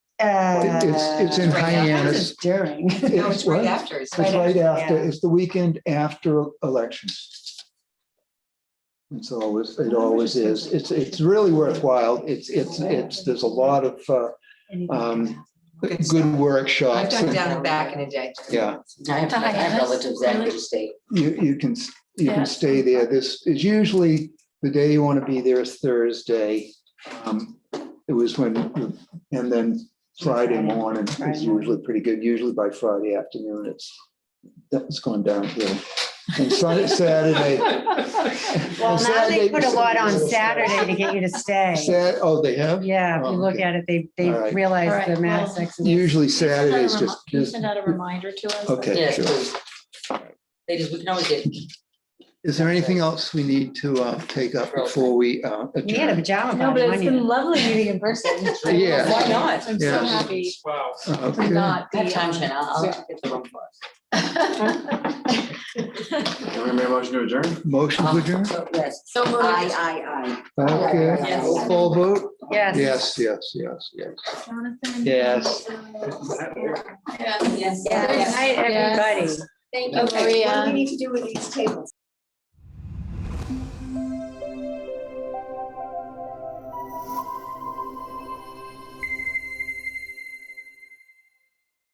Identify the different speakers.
Speaker 1: It-
Speaker 2: It's, it's in
Speaker 1: Uh,
Speaker 3: Right after.
Speaker 2: Hyannis.
Speaker 1: During.
Speaker 3: No, it's
Speaker 2: what?
Speaker 3: right after. It's
Speaker 2: It's right after,
Speaker 1: yeah.
Speaker 2: it's the weekend after elections. It's always,
Speaker 3: Oh,
Speaker 2: it always is. It's, it's really worthwhile. It's, it's, it's, there's a lot of uh, um,
Speaker 3: Good stuff.
Speaker 2: good
Speaker 3: I've
Speaker 2: workshops.
Speaker 3: done down and back in a day.
Speaker 2: Yeah,
Speaker 4: I have I have relatives that do stay.
Speaker 2: you, you can, you
Speaker 5: Yeah.
Speaker 2: can stay there. This is usually the day you want to be there is Thursday. Um, It was when, and then Friday morning
Speaker 1: Friday
Speaker 2: is
Speaker 1: morning.
Speaker 2: usually pretty good. Usually by Friday afternoon, it's, that's going downhill. And Sunday, Saturday,
Speaker 1: Well, now they
Speaker 2: Saturday-
Speaker 1: put a lot on Saturday to get you to stay.
Speaker 2: Sat, oh, they have?
Speaker 1: Yeah, if you look
Speaker 2: Okay.
Speaker 1: at it, they, they
Speaker 2: All right.
Speaker 5: All
Speaker 1: realize
Speaker 5: right,
Speaker 1: the amount of
Speaker 5: well,
Speaker 1: sex. it is.
Speaker 2: Usually
Speaker 5: Can you send out a
Speaker 2: Saturdays
Speaker 5: remi-
Speaker 2: just,
Speaker 5: Can you
Speaker 2: just,
Speaker 5: send out a reminder to us?
Speaker 2: okay,
Speaker 4: Yes,
Speaker 2: sure.
Speaker 4: please. Ladies, we can always get,
Speaker 2: Is there anything else we need to uh, take up before we uh,
Speaker 1: We had a
Speaker 2: adjourn?
Speaker 1: pajama
Speaker 5: No,
Speaker 1: party
Speaker 5: but it's
Speaker 1: one year.
Speaker 5: been lovely meeting in person.
Speaker 2: Yeah.
Speaker 4: why not?
Speaker 5: I'm
Speaker 2: Yeah.
Speaker 5: so happy
Speaker 6: Wow.
Speaker 5: to
Speaker 2: Okay.
Speaker 5: not be.
Speaker 4: Have time,
Speaker 5: on-
Speaker 4: Shannon. I'll I'll get the room for us.
Speaker 5: um,
Speaker 6: Can we make a motion to adjourn?
Speaker 2: Motion to adjourn?
Speaker 4: So, Yes.
Speaker 5: So moved.
Speaker 4: I,
Speaker 2: Okay,
Speaker 4: Yes.
Speaker 2: roll call vote?
Speaker 1: Yes.
Speaker 2: Yes, yes, yes, yes.
Speaker 5: Jonathan?
Speaker 2: Yes.
Speaker 5: Yes.
Speaker 4: Yes.
Speaker 1: Good night, everybody.
Speaker 5: Thank you, Maria. uh,
Speaker 7: What do we need to do with these tables?